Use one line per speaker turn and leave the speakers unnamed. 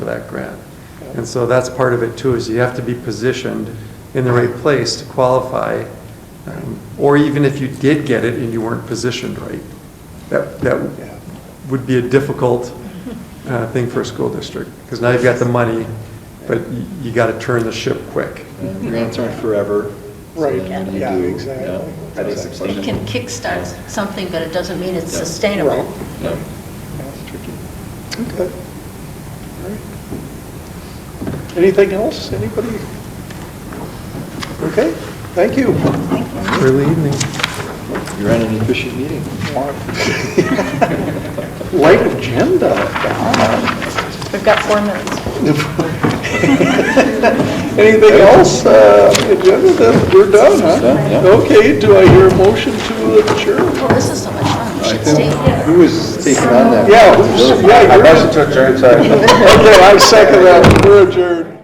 for that grant. And so that's part of it too, is you have to be positioned in the right place to qualify. Um, Or even if you did get it and you weren't positioned right, that, that would be a difficult uh, thing for a school district. Because now you've got the money, but you, you got to turn the ship quick.
Grants aren't forever.
Right,
And you
yeah,
do,
exactly.
yeah. I think it's
It can kickstart something, but it doesn't mean it's sustainable.
Yeah.
Okay. Anything else, anybody? Okay, thank you.
Early evening.
You ran an efficient meeting.
Light agenda.
We've got four minutes.
Anything else, uh, agenda, then we're done,
Done,
huh?
yeah.
Okay, do I hear a motion to adjourn?
Well, Oh, this is so much fun, we should stay here.
Who was taking on that?
Yeah, who's- yeah, you're-
I motion to adjourn, sorry.
Okay, I second that, we're adjourned.